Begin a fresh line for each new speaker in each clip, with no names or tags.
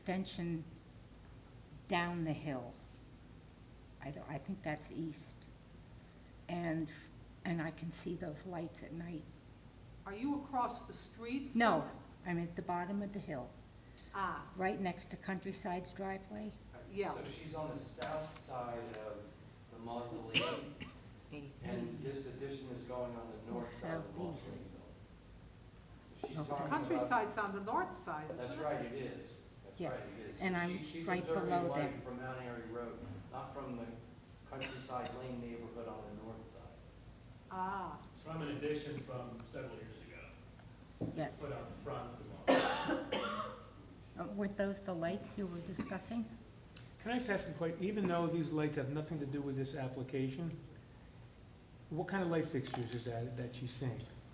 extension down the hill. I don't, I think that's east. And, and I can see those lights at night.
Are you across the street? from-
No, I'm at the bottom of the hill,
Ah,
right next to Countryside's driveway.
Yeah.
So she's on the south side of the mausoleum, and this addition is going on the north side of the
Southeast.
mausoleum. So she's
Okay.
talking about.
Countryside's on the north side, isn't it?
That's right, it is. That's right,
Yes,
it is.
and
She-
I'm right below
She's observing light
them.
from Mount Airy Road, not from the Countryside Lane neighborhood on the north side.
Ah,
It's from an addition from several years ago,
Yes.
put on front of the mall.
Uh, Weren't those the lights you were discussing?
Can I just ask a question? Even though these lights have nothing to do with this application, what kind of light fixtures is that, that she's seeing?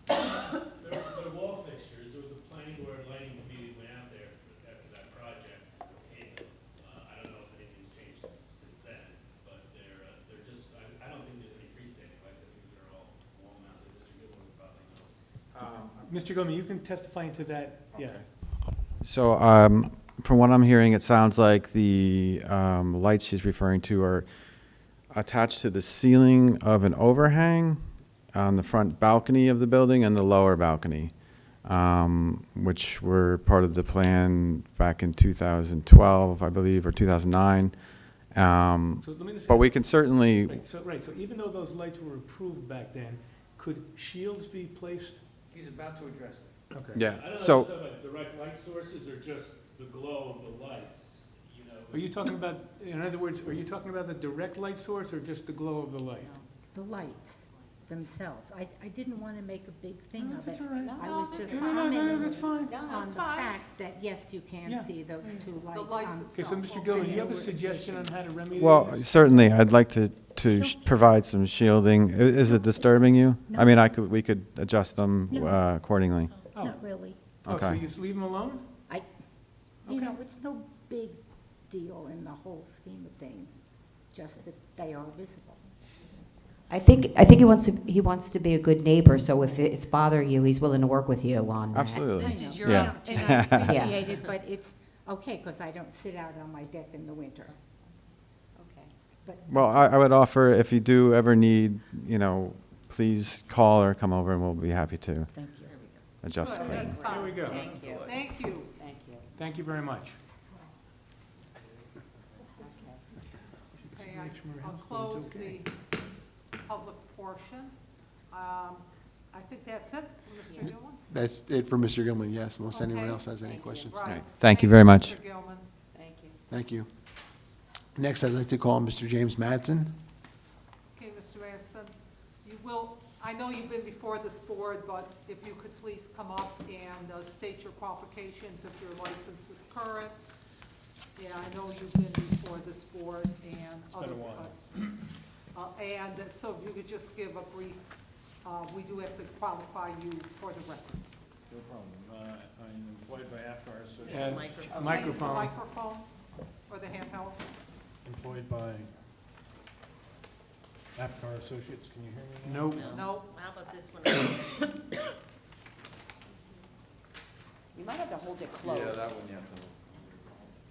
There were, there were wall fixtures, there was a planning board lighting committee went out there after that project, okayed them. Uh, I don't know if anything's changed since then, but they're, uh, they're just, I, I don't think there's any freestanding lights, I think they're all wall mounted, Mr. Goodwin would probably know.
Mr. Gomez, you can testify into that, yeah.
So, um, from what I'm hearing, it sounds like the, um, lights she's referring to are attached to the ceiling of an overhang on the front balcony of the building and the lower balcony, um, which were part of the plan back in two thousand twelve, I believe, or two thousand nine. Um,
So let me just.
but we can certainly,
Right, so, right, so even though those lights were approved back then, could shields be placed?
He's about to address it.
Okay.
yeah,
I don't know if it's
so,
talking about direct light sources or just the glow of the lights, you know.
Are you talking about, in other words, are you talking about the direct light source or just the glow of the light?
The lights themselves. I, I didn't want to make a big thing
No,
of it.
that's all right.
I
No,
was
that's
just
No, no, no, no, no,
commenting
that's fine.
no,
on
that's
the
fine.
fact that, yes, you can
Yeah. Mm.
see those two lights. um,
The lights
on-
Okay, so
itself.
Mr. Gilman, you have
They were
a suggestion on how to remedy this?
well, certainly, I'd like to, to sh- provide some shielding. I- Is it disturbing you? I mean, I could, we could adjust them,
No.
uh, accordingly.
Oh.
Not really.
Oh, so
okay.
you just leave them alone?
I, you
Okay.
know, it's no big deal in the whole scheme of things, just that they are visible.
I think, I think he wants to, he wants to be a good neighbor, so if it's bothering you, he's willing to work with you on that.
Absolutely.
This is
your Yeah. own
And I appreciate it, but it's, okay, because I don't sit out on my deck in the winter. Okay, but.
Well, I, I would offer, if you do ever need, you know, please call or come over and we'll be happy to
Thank you.
adjust.
Good,
accordingly.
that's fine.
There we go.
Thank you,
Thank you.
thank you.
Thank you very much.
Okay,
Okay.
Just
I-
make sure my
I'll close
husband's
the
okay.
public portion. Um, I think that's it, for Mr. Gilman?
That's it for Mr. Gilman, yes, unless anyone
Okay.
else has any
Thank you.
questions.
Right.
Thank you very much.
Mr. Gilman.
Thank you.
Thank you. Next, I'd like to call Mr. James Mattson.
Okay, Mr. Ranson, you will, I know you've been before this board, but if you could please come up and uh, state your qualifications if your license is current. Yeah, I know you've been before this board and other.
been a while.
Uh, And uh, so if you could just give a brief, uh, we do have to qualify you for the record.
No problem. Uh, I'm employed by AFCAR
Uh,
Association,
Please, the
Microphone.
microphone or the handheld.
employed by AFCAR Associates. Can you hear me now?
Nope.
No,
How about this one?
You might have to hold it close.
one you have to.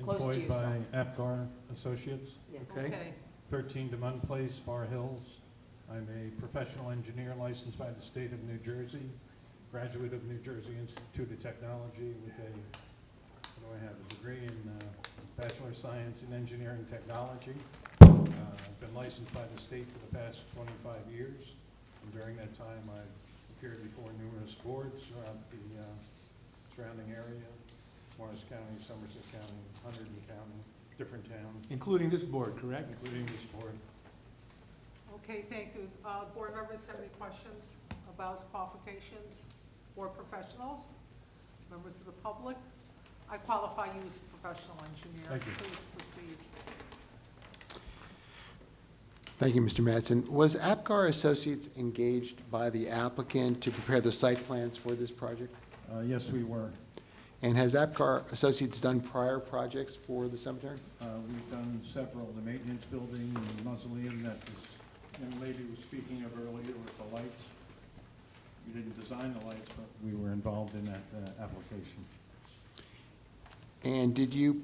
Close to
Employed
your
by AFCAR Associates,
Okay.
okay.
13 Demond Place, Far Hills. I'm a professional engineer licensed by the state of New Jersey, graduate of New Jersey Institute of Technology with a, what do I have, a degree in uh, Bachelor of Science in Engineering Technology. Uh, I've been licensed by the state for the past 25 years, and during that time, I've appeared before numerous boards throughout the uh, surrounding area, Morris County, Somerset County, Hunterdon County, different towns,
Including this board, correct?
including this board.
Okay, thank you. Uh, Board members have any questions about his qualifications or professionals? Members of the public? I qualify you as a professional engineer.
Thank you.
Please proceed.
Thank you, Mr. Mattson. Was APGAR Associates engaged by the applicant to prepare the site plans for this project?
Uh, Yes, we were.
And has APGAR Associates done prior projects for the cemetery?
Uh, We've done several, the maintenance building, the mausoleum that this young lady was speaking of earlier with the lights. We didn't design the lights, but we were involved in that uh, application.
And did you